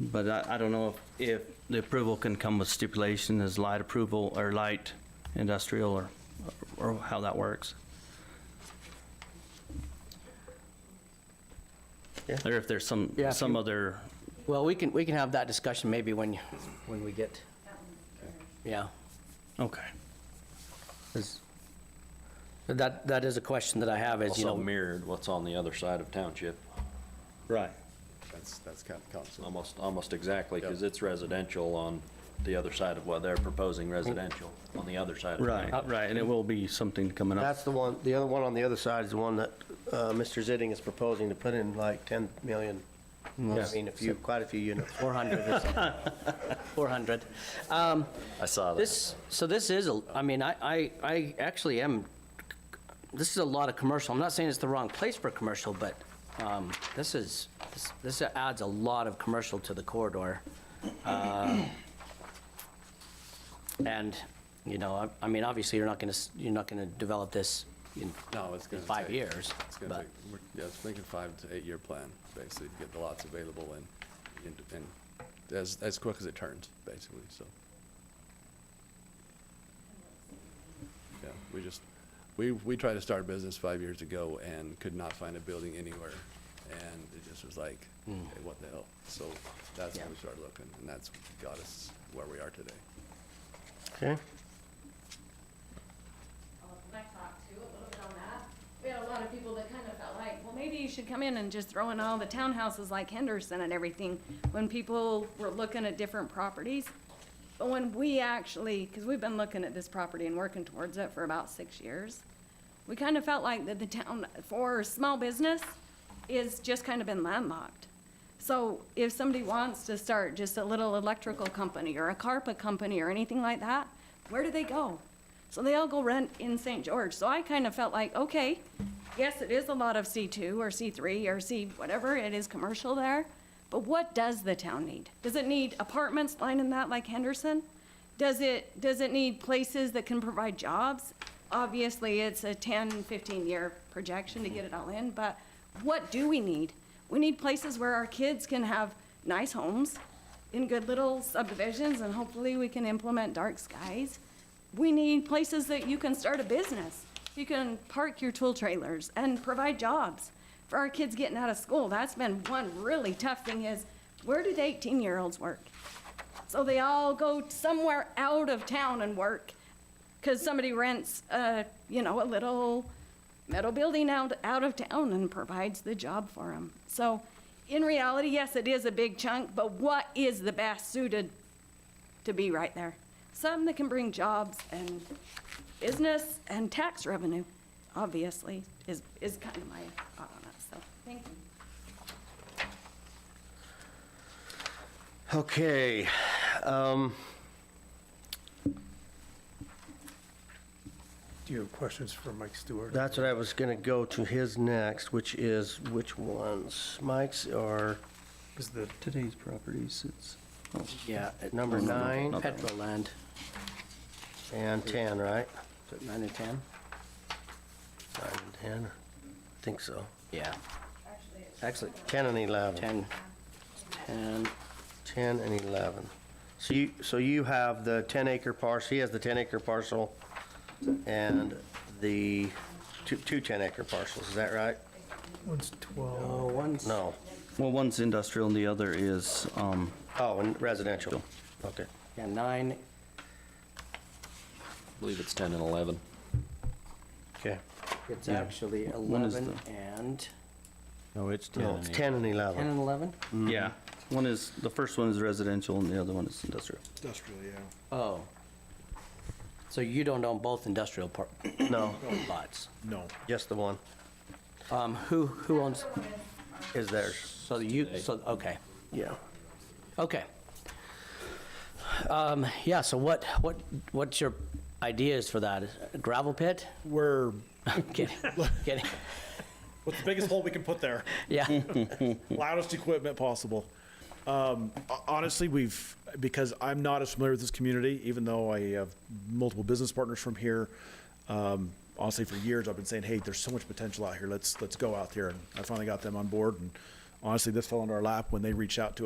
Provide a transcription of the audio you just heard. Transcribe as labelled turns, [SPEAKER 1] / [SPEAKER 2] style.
[SPEAKER 1] But I, I don't know if, if the approval can come with stipulation as light approval or light industrial or, or how that works.
[SPEAKER 2] Yeah.
[SPEAKER 1] Or if there's some,
[SPEAKER 2] Yeah, if
[SPEAKER 1] some
[SPEAKER 2] you-
[SPEAKER 1] other,
[SPEAKER 2] Well, we can, we can have that discussion maybe when, when we get, yeah.
[SPEAKER 1] okay.
[SPEAKER 2] 'Cause That, that is a question that I have is, you
[SPEAKER 3] Also
[SPEAKER 2] know,
[SPEAKER 3] mirrored what's on the other side of township,
[SPEAKER 1] Right.
[SPEAKER 4] That's, that's kind of council.
[SPEAKER 3] almost, almost exactly, because it's residential on the other side of what they're proposing residential, on the other side of
[SPEAKER 1] Right,
[SPEAKER 3] town.
[SPEAKER 1] right, and it will be something coming up.
[SPEAKER 5] That's the one, the other one on the other side is the one that uh, Mr. Zitting is proposing to put in like 10 million. I mean, a few, quite a few units.
[SPEAKER 2] 400 or something. 400. Um,
[SPEAKER 3] I saw that.
[SPEAKER 2] This, so this is, a- I mean, I, I, I actually am, this is a lot of commercial. I'm not saying it's the wrong place for commercial, but um, this is, this- this adds a lot of commercial to the corridor. Uh, And, you know, I- I mean, obviously, you're not going to, you're not going to develop this in
[SPEAKER 4] No, it's
[SPEAKER 2] in
[SPEAKER 4] going to take.
[SPEAKER 2] five years,
[SPEAKER 4] It's going to
[SPEAKER 2] but,
[SPEAKER 4] take, we're- yeah, it's making five to eight-year plan, basically, to get the lots available and, and- and as, as quick as it turns, basically, so. Yeah, we just, we, we tried to start a business five years ago and could not find a building anywhere. And it just was like, hey, what the hell? So that's when
[SPEAKER 2] Hmm.
[SPEAKER 4] we
[SPEAKER 2] Yeah.
[SPEAKER 4] started looking, and that's got us where we are today.
[SPEAKER 5] Okay.
[SPEAKER 6] I'll let Mike talk too, a little bit on that. We had a lot of people that kind of felt like, well, maybe you should come in and just throw in all the townhouses like Henderson and everything, when people were looking at different properties. But when we actually, because we've been looking at this property and working towards it for about six years, we kind of felt like that the town, for small business, is just kind of been landlocked. So if somebody wants to start just a little electrical company or a carpet company or anything like that, where do they go? So they all go rent in St. George. So I kind of felt like, okay, yes, it is a lot of C2 or C3 or C whatever, it is commercial there. But what does the town need? Does it need apartments lining that like Henderson? Does it, does it need places that can provide jobs? Obviously, it's a 10, 15-year projection to get it all in, but what do we need? We need places where our kids can have nice homes in good little subdivisions, and hopefully we can implement dark skies. We need places that you can start a business. You can park your tool trailers and provide jobs for our kids getting out of school. That's been one really tough thing is, where did 18-year-olds work? So they all go somewhere out of town and work, because somebody rents, a, you know, a little metal building out, out of town and provides the job for them. So in reality, yes, it is a big chunk, but what is the best suited to be right there? Some that can bring jobs and business and tax revenue, obviously, is, is kind of my thought on it, so, thank you.
[SPEAKER 5] Okay. um,
[SPEAKER 7] Do you have questions for Mike Stewart?
[SPEAKER 5] That's what I was going to go to his next, which is which ones? Mike's or
[SPEAKER 7] Is the,
[SPEAKER 1] Today's properties, it's.
[SPEAKER 2] yeah, it-
[SPEAKER 5] number nine
[SPEAKER 2] Petrol land,
[SPEAKER 5] and 10, right?
[SPEAKER 2] Is it nine and 10?
[SPEAKER 5] Nine and 10, I think so.
[SPEAKER 2] Yeah, actually,
[SPEAKER 5] 10 and 11.
[SPEAKER 2] 10, 10,
[SPEAKER 5] 10 and 11. So you, so you have the 10 acre parcel, he has the 10 acre parcel and the two, two 10 acre parcels, is that right?
[SPEAKER 7] one's 12,
[SPEAKER 2] oh, one's.
[SPEAKER 5] No.
[SPEAKER 1] Well, one's industrial and the other is, um,
[SPEAKER 5] Oh, and residential. Okay.
[SPEAKER 2] Yeah, nine,
[SPEAKER 3] I believe it's 10 and 11.
[SPEAKER 5] Okay.
[SPEAKER 2] it's
[SPEAKER 1] Yeah.
[SPEAKER 2] actually
[SPEAKER 1] One is
[SPEAKER 2] 11 and,
[SPEAKER 8] No, it's 10
[SPEAKER 5] No,
[SPEAKER 8] and
[SPEAKER 5] it's
[SPEAKER 8] 8.
[SPEAKER 5] 10 and
[SPEAKER 2] 10
[SPEAKER 5] 11.
[SPEAKER 2] and 11?
[SPEAKER 1] yeah, one is, the first one is residential and the other one is industrial.
[SPEAKER 7] industrial, yeah.
[SPEAKER 2] Oh. So you don't own both industrial par-
[SPEAKER 5] No,
[SPEAKER 2] lots?
[SPEAKER 7] No.
[SPEAKER 5] just the one
[SPEAKER 2] Um, who, who owns,
[SPEAKER 5] is theirs.
[SPEAKER 2] so you, so, okay,
[SPEAKER 5] Yeah.
[SPEAKER 2] okay. Um, yeah, so what, what, what's your ideas for that? Gravel pit?
[SPEAKER 9] We're
[SPEAKER 2] Kidding, kidding,
[SPEAKER 9] what's the biggest hole we can put there?
[SPEAKER 2] yeah.
[SPEAKER 9] Loudest equipment possible. Um, ho- honestly, we've because I'm not as familiar with this community, even though I have multiple business partners from here. Um, honestly, for years I've been saying, "Hey, there's so much potential out here. Let's let's go out there." And I finally got them on board. And honestly, this fell into our lap when they reached out to